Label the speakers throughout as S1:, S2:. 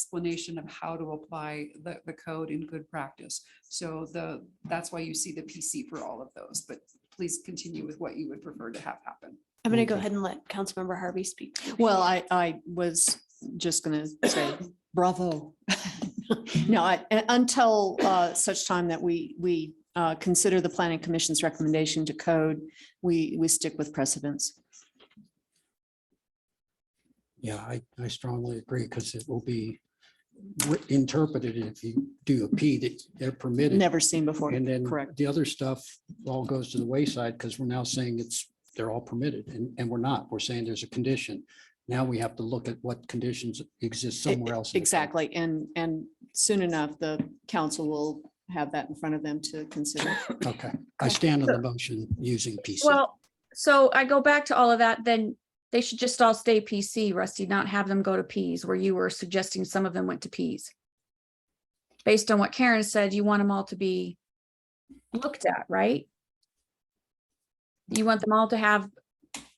S1: explanation of how to apply the, the code in good practice. So the, that's why you see the PC for all of those, but please continue with what you would prefer to have happen.
S2: I'm gonna go
S3: Okay.
S2: ahead and let Councilmember Harvey speak.
S3: Well, I, I was just gonna say bravo. No, I- un- until uh, such time that we, we uh, consider the planning commission's recommendation to code, we, we stick with precedence.
S4: Yeah, I, I strongly agree because it will be wi- interpreted if you do a P that they're permitted.
S3: Never seen before.
S4: And then
S3: Correct.
S4: the other stuff all goes to the wayside because we're now saying it's, they're all permitted and, and we're not. We're saying there's a condition. Now we have to look at what conditions exist
S3: E-
S4: somewhere else. in the code.
S3: Exactly. And, and soon enough, the council will have that in front of them to consider.
S4: Okay, I stand on the motion using PC.
S5: Well, so I go back to all of that, then they should just all stay PC, Rusty, not have them go to Ps where you were suggesting some of them went to Ps. Based on what Karen said, you want them all to be looked at, right? You want them all to have,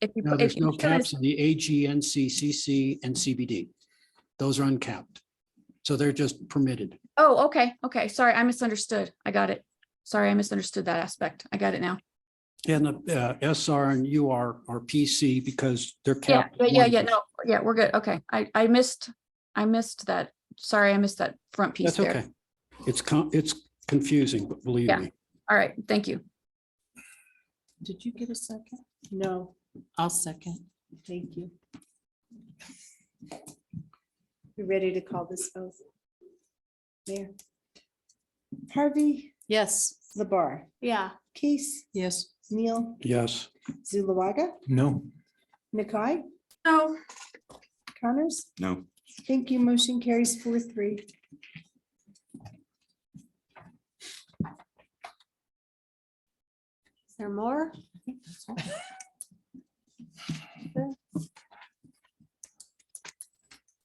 S5: if you.
S4: No,
S5: if
S4: there's
S5: you
S4: no
S5: put it-
S4: caps on the AG, NC, CC, and CBD. Those are uncapped. So they're just permitted.
S5: Oh, okay, okay, sorry, I misunderstood. I got it. Sorry, I misunderstood that aspect. I got it now.
S4: And the uh, SR and UR are PC because they're
S5: Yeah,
S4: capped.
S5: yeah,
S4: at
S5: yeah, yeah,
S4: 1%.
S5: no, yeah, we're good. Okay, I, I missed, I missed that. Sorry, I missed that front
S4: That's
S5: piece there.
S4: okay. It's, con- it's confusing, but believe
S5: Yeah.
S4: me.
S5: All right, thank you.
S6: Did you get a second?
S3: No,
S6: I'll second.
S3: thank you.
S2: You ready to call this oath? Mayor. Harvey,
S3: Yes.
S2: Labar. Yeah. Case,
S6: Yes.
S2: Neil,
S4: Yes.
S2: Zulawaga,
S7: No.
S2: Nakai,
S5: No.
S2: Connors.
S7: No.
S2: Thank you. Motion carries four three. Is there more?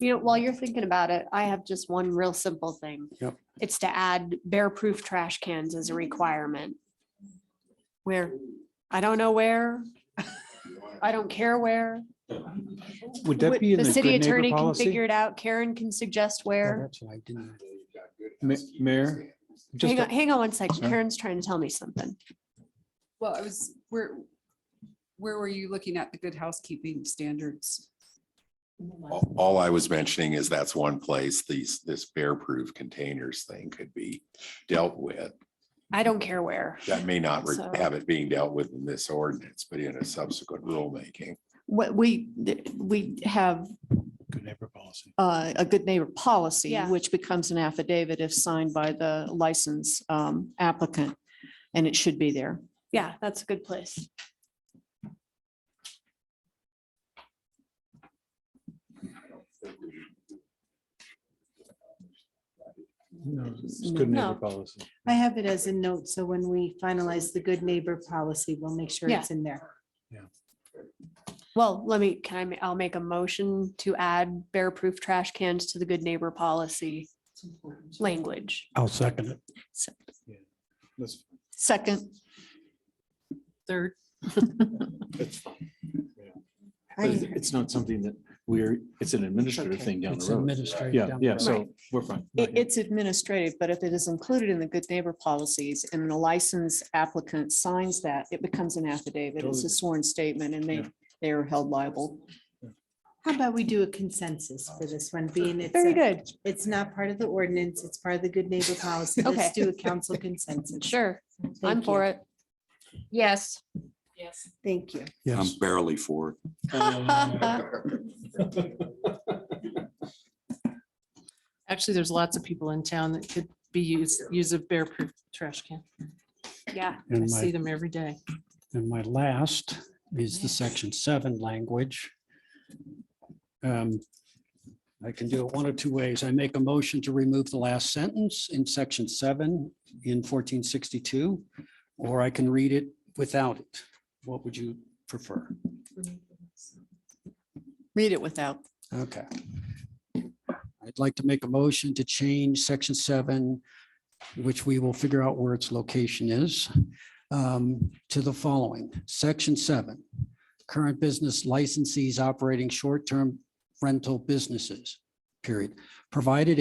S8: You know, while you're thinking about it, I have just one real simple thing.
S4: Yep.
S8: It's to add bear-proof trash cans as a requirement. Where, I don't know where, I don't care where.
S7: Would that
S8: Would-
S7: be in
S8: The
S7: the
S8: city
S7: good neighbor
S8: attorney can figure
S7: policy?
S8: it out. Karen can suggest
S4: Yeah,
S8: where.
S4: That's what I didn't.
S7: Ma- Mayor? Just
S8: Hang
S7: a-
S8: on, hang on one second.
S7: Sorry.
S8: Karen's trying to tell me something.
S1: Well, I was, where, where were you looking at the good housekeeping standards?
S9: All all I was mentioning is that's one place these, this bear-proof containers thing could be dealt with.
S8: I don't care where.
S9: That may not re-
S8: So-
S9: have it being dealt with in this ordinance, but in a subsequent rulemaking.
S3: What we, we have
S7: Good neighbor policy.
S3: uh, a good neighbor policy,
S8: Yeah.
S3: which becomes an affidavit if signed by the license um, applicant. And it should be there.
S8: Yeah, that's a good place.
S7: No, it's good
S3: No.
S7: neighbor policy.
S6: I have it as a note, so when we finalize the good neighbor policy, we'll make sure it's in there.
S8: Well, let me, can I, ma- I'll make a motion to add bear-proof trash cans to the good neighbor policy language.
S4: I'll second it.
S7: That's-
S3: Second,
S6: Third.
S7: that's-
S6: I-
S7: It's it's not something that we're, it's an administrative
S6: okay.
S7: thing down
S4: It's
S7: the road.
S4: administrative.
S7: Yeah,
S4: down the
S7: yeah,
S4: road.
S7: so we're fine.
S3: i- it's administrative, but if it is included in the good neighbor policies and the license applicant signs that, it becomes an affidavit. It's a
S7: Totally.
S3: sworn statement and they,
S7: Yeah.
S3: they are held liable.
S6: How about we do a consensus for this one, being it's,
S8: Very
S6: a-
S8: good.
S6: it's not part of the ordinance, it's part of the good neighbor policy.
S8: Okay.
S6: Let's do a council consensus.
S8: Sure. I'm
S6: Thank
S8: for
S6: you.
S8: it.
S5: Yes.
S6: Yes. Thank you.
S4: Yes.
S9: barely for.
S6: Actually, there's lots of people in town that could be used, use a bear proof trash can.
S8: Yeah.
S6: I
S4: And
S6: see
S4: my,
S6: them every day.
S4: and my last is the section seven language. Um, I can do it one of two ways. I make a motion to remove the last sentence in section seven in fourteen sixty-two, or I can read it without it. What would you prefer?
S3: Read it without.
S4: Okay. I'd like to make a motion to change section seven, which we will figure out where its location is, um, to the following, section seven. Current business licensees operating short-term rental businesses. period, provided